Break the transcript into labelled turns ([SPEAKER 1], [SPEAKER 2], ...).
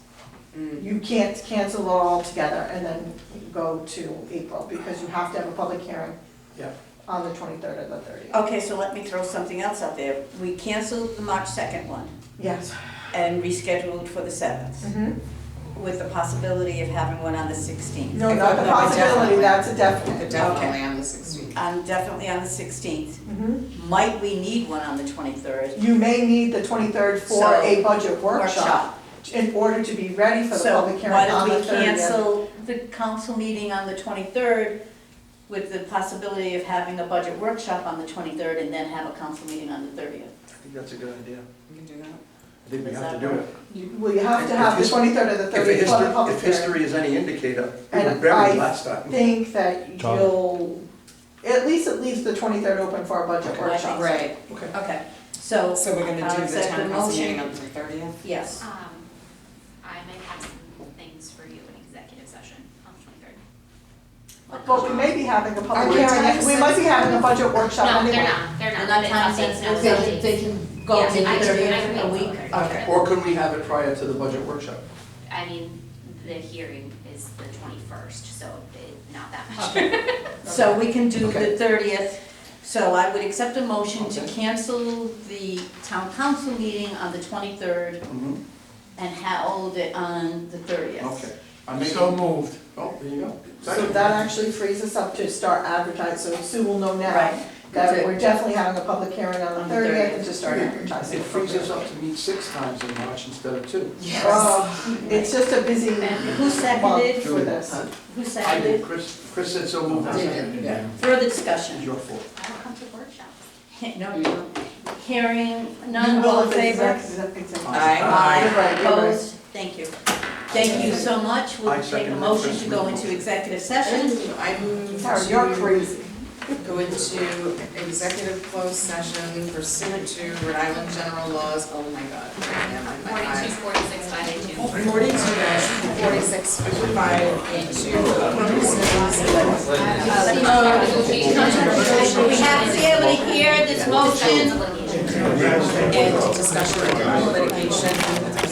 [SPEAKER 1] You can't cancel it all together and then go to April, because you have to have a public hearing
[SPEAKER 2] Yeah.
[SPEAKER 1] on the twenty-third or the thirtieth.
[SPEAKER 3] Okay, so let me throw something else out there. We canceled the March 2nd one
[SPEAKER 1] Yes.
[SPEAKER 3] and rescheduled for the 7th
[SPEAKER 1] Mhm.
[SPEAKER 3] with the possibility of having one on the 16th.
[SPEAKER 1] No, not the
[SPEAKER 4] No,
[SPEAKER 1] possibility,
[SPEAKER 4] definitely.
[SPEAKER 1] that's a definite.
[SPEAKER 4] But definitely on the sixteenth.
[SPEAKER 3] I'm definitely on the 16th.
[SPEAKER 1] Mhm.
[SPEAKER 3] Might we need one on the 23rd?
[SPEAKER 1] You may need the twenty-third for
[SPEAKER 3] So,
[SPEAKER 1] a budget workshop in order to be ready for the
[SPEAKER 3] So
[SPEAKER 1] public hearing
[SPEAKER 3] why
[SPEAKER 1] on
[SPEAKER 3] don't
[SPEAKER 1] the
[SPEAKER 3] we
[SPEAKER 1] thirtieth.
[SPEAKER 3] cancel the council meeting on the 23rd with the possibility of having a budget workshop on the 23rd and then have a council meeting on the 30th?
[SPEAKER 2] I think that's a good idea.
[SPEAKER 4] You can do that.
[SPEAKER 2] I think we
[SPEAKER 3] Does
[SPEAKER 2] have to
[SPEAKER 3] that
[SPEAKER 2] do
[SPEAKER 3] work?
[SPEAKER 2] it.
[SPEAKER 1] Well, you have to have the
[SPEAKER 2] If his-
[SPEAKER 1] twenty-third or the
[SPEAKER 2] If a
[SPEAKER 1] thirtieth for the
[SPEAKER 2] history-
[SPEAKER 1] public
[SPEAKER 2] If
[SPEAKER 1] hearing.
[SPEAKER 2] history is any indicator, we were
[SPEAKER 1] And I
[SPEAKER 2] buried last time.
[SPEAKER 1] Think that
[SPEAKER 5] Tom.
[SPEAKER 1] you'll, at least it leaves the twenty-third open for a budget
[SPEAKER 3] Okay.
[SPEAKER 1] workshop.
[SPEAKER 4] Right,
[SPEAKER 2] Okay.
[SPEAKER 3] Okay, so,
[SPEAKER 4] so we're gonna
[SPEAKER 3] I'll
[SPEAKER 4] do the
[SPEAKER 3] accept the
[SPEAKER 4] town council
[SPEAKER 3] motion.
[SPEAKER 4] meeting on the thirtieth?
[SPEAKER 3] yes.
[SPEAKER 6] Um, I might have some things for you in executive session on the twenty-third.
[SPEAKER 1] But we may be having a public
[SPEAKER 4] they
[SPEAKER 1] hearing,
[SPEAKER 4] time
[SPEAKER 1] we might be having a budget workshop
[SPEAKER 6] No,
[SPEAKER 1] anyway.
[SPEAKER 6] they're not, they're
[SPEAKER 3] They're
[SPEAKER 6] not.
[SPEAKER 3] not
[SPEAKER 6] It's
[SPEAKER 3] time
[SPEAKER 6] updates,
[SPEAKER 3] sensitive.
[SPEAKER 6] no, it's
[SPEAKER 3] They-
[SPEAKER 6] updates.
[SPEAKER 3] they can go
[SPEAKER 6] Yes,
[SPEAKER 3] to the
[SPEAKER 6] I can-
[SPEAKER 3] 30th
[SPEAKER 6] I can
[SPEAKER 3] a
[SPEAKER 6] wait
[SPEAKER 3] week.
[SPEAKER 6] till the 30th.
[SPEAKER 3] Okay.
[SPEAKER 2] Or could we have it prior to the budget workshop?
[SPEAKER 6] I mean, the hearing is the twenty-first, so it, not that much.
[SPEAKER 3] So we can do the
[SPEAKER 2] Okay.
[SPEAKER 3] thirtieth, so I would accept a motion to
[SPEAKER 2] Okay.
[SPEAKER 3] cancel the town council meeting on the twenty-third
[SPEAKER 2] Mhm.
[SPEAKER 3] and hold it on the thirtieth.
[SPEAKER 2] Okay. I make,
[SPEAKER 5] So
[SPEAKER 2] oh,
[SPEAKER 5] moved.
[SPEAKER 2] there you go.
[SPEAKER 1] So
[SPEAKER 2] Second.
[SPEAKER 1] that actually frees us up to start advertising, so Sue will know now
[SPEAKER 3] Right,
[SPEAKER 1] that
[SPEAKER 3] Good.
[SPEAKER 1] we're definitely having a public hearing on the
[SPEAKER 3] On the
[SPEAKER 1] thirtieth and
[SPEAKER 3] 30th.
[SPEAKER 1] to start advertising.
[SPEAKER 2] It frees us up to meet six times in March instead of two.
[SPEAKER 1] Oh, It's just a busy
[SPEAKER 3] who
[SPEAKER 1] month
[SPEAKER 3] seconded,
[SPEAKER 1] for this.
[SPEAKER 3] who
[SPEAKER 2] I did,
[SPEAKER 3] seconded,
[SPEAKER 2] Chris, Chris said so moved.
[SPEAKER 4] David,
[SPEAKER 2] Yeah.
[SPEAKER 3] further
[SPEAKER 2] It's
[SPEAKER 3] discussion?
[SPEAKER 2] your fault.
[SPEAKER 6] I will come to workshops.
[SPEAKER 3] He- No, you don't. hearing none, all in
[SPEAKER 1] Well,
[SPEAKER 3] favor?
[SPEAKER 1] exact- exact-
[SPEAKER 3] Aye,
[SPEAKER 1] You're right, you're right.
[SPEAKER 3] opposed, thank you. Thank you so much,
[SPEAKER 2] I
[SPEAKER 3] we'll take a
[SPEAKER 2] second that
[SPEAKER 3] motion
[SPEAKER 2] first
[SPEAKER 3] to go
[SPEAKER 2] motion.
[SPEAKER 3] into executive session.
[SPEAKER 4] I move
[SPEAKER 1] Sarah, you're
[SPEAKER 4] to
[SPEAKER 1] crazy.
[SPEAKER 4] go into executive closed session pursuant to Rhode Island general laws, oh my god, yeah, my, my eyes.
[SPEAKER 6] Forty-two, forty-six, five, eight, two.
[SPEAKER 4] Forty-two dash forty-six five eight two purposes.
[SPEAKER 3] Oh, Uh, We uh, have to be able to hear this motion.
[SPEAKER 6] Litigation.
[SPEAKER 4] And discussion of litigation